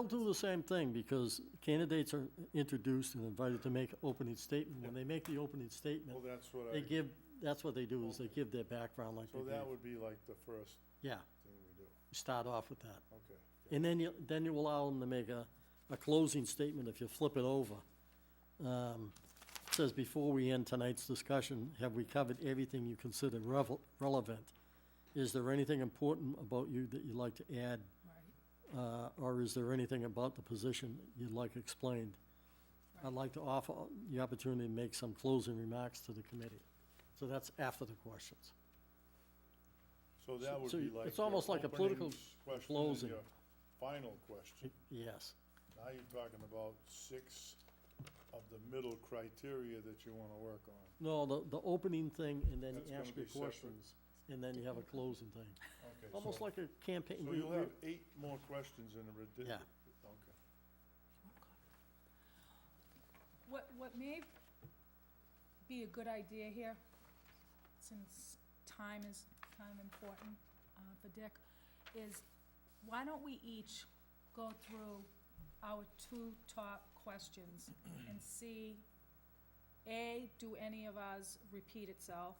They'll do the same thing because candidates are introduced and invited to make opening statement. When they make the opening statement, Well, that's what I, they give, that's what they do is they give their background like they so that did. would be like the first Yeah, thing we do, start off with that. okay. And then you, then you allow them to make a, a closing statement if you flip it over. Um, it Says, before we end tonight's discussion, have we covered everything you consider revel- relevant? Is there anything important about you that you'd like to add? Uh, or is there anything about the position you'd like explained? I'd like to offer the opportunity to make some closing remarks to the committee. So that's after the questions. So that would so be you- like. it's your almost like a opening political s- question and closing. your Final question. Yes, Now you're talking about six of the middle criteria that you wanna work on. no, the, the opening thing and then That's you gonna ask your be separate. questions, and then you have a closing thing. Okay, Almost so- like a campaign. So we- you'll we- have eight more questions in the ridiculous. Yeah. Okay. Oh, What, what may be a good idea here, since time is kind of important uh, for Dick, is why don't we each go through our two top questions and see, A, do any of ours repeat itself?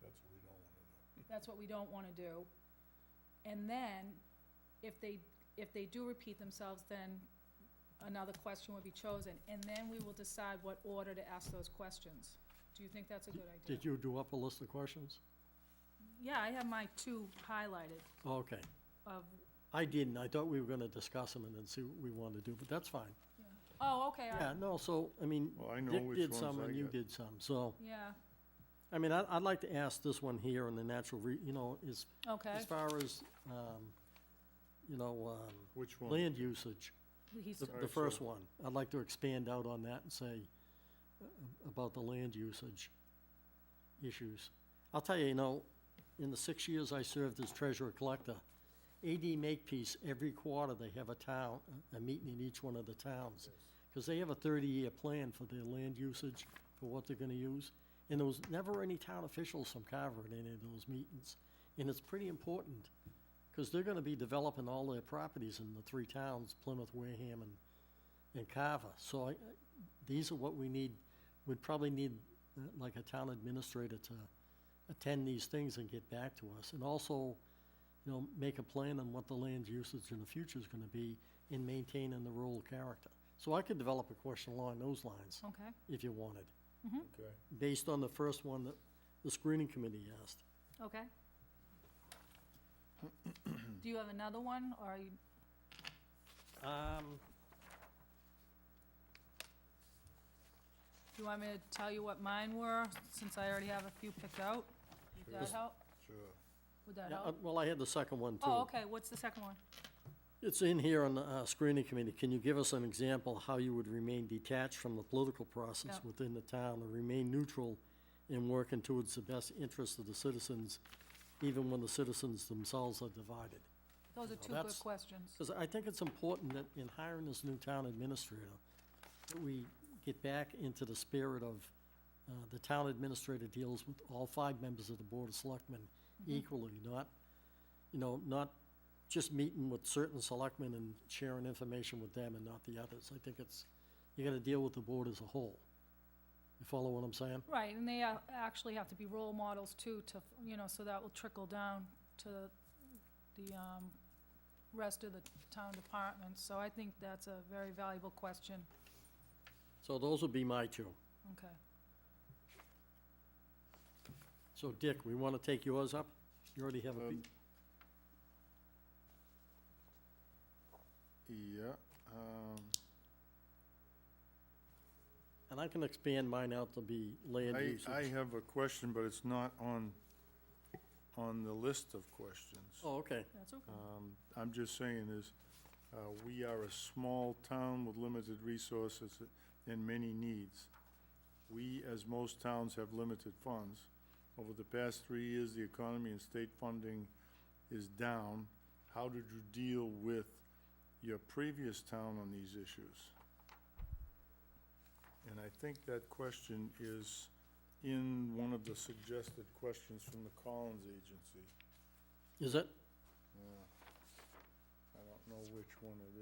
That's what we don't wanna do. That's what we don't want to do. And then, if they, if they do repeat themselves, then another question would be chosen, and then we will decide what order to ask those questions. Do you think that's a good idea? Did you do up a list of questions? Yeah, I have my two highlighted Oh, Okay. of, I didn't. I thought we were gonna discuss them and then see what we wanted to do, but that's fine. oh, okay, I- Yeah, no, so, I mean, Well, I know Dick which did ones some I and you got. did some, so, yeah, I mean, I, I'd like to ask this one here on the natural re, you know, as, okay. as far as, um, you know, um, Which one? land usage, He's, the, All the right, first so- one. I'd like to expand out on that and say uh, about the land usage issues. I'll tell you, you know, in the six years I served as treasurer collector, AD Makepeace, every quarter they have a town, a meeting in each one of the towns. Because they have a thirty-year plan for their land usage, for what they're gonna use. And there was never any town officials from Carver at any of those meetings. And it's pretty important, because they're gonna be developing all their properties in the three towns, Plymouth, Wareham, and, and Carver. So I, I- these are what we need, we'd probably need, uh, like a town administrator to attend these things and get back to us. And also, you know, make a plan on what the land usage in the future is gonna be in maintaining the rural character. So I could develop a question along those lines, okay, if you wanted, Okay. based on the first one that the screening committee asked. okay. Do you have another one, or you, Um, do you want me to tell you what mine were, since I already have a few picked out? Would that Just- help? Sure. Would that yeah, help? uh, well, I had the second one too. Oh, okay, what's the second one? It's in here on the uh, screening committee. Can you give us an example how you would remain detached from the political process No. within the town and remain neutral in working towards the best interests of the citizens, even when the citizens themselves are divided? Those are two good that's- questions. Because I think it's important that in hiring this new town administrator, that we get back into the spirit of, uh, the town administrator deals with all five members of the Board of Selectmen equally, not, you know, not just meeting with certain selectmen and sharing information with them and not the others. I think it's, you gotta deal with the board as a whole. You follow what I'm saying? Right, and they a- actually have to be role models too, to, you know, so that will trickle down to the um, rest of the town departments. So I think that's a very valuable question. So those would be my two. Okay. So Dick, we wanna take yours up? You already have a, Um, pe- Yeah, um, and I can expand mine out to be land I, usage. I have a question, but it's not on, on the list of questions. Oh, okay. That's okay. Um, I'm just saying is, uh, we are a small town with limited resources and many needs. We, as most towns, have limited funds. Over the past three years, the economy and state funding is down. How did you deal with your previous town on these issues? And I think that question is in one of the suggested questions from the Collins Agency. Is it? Yeah. I don't know which one it is.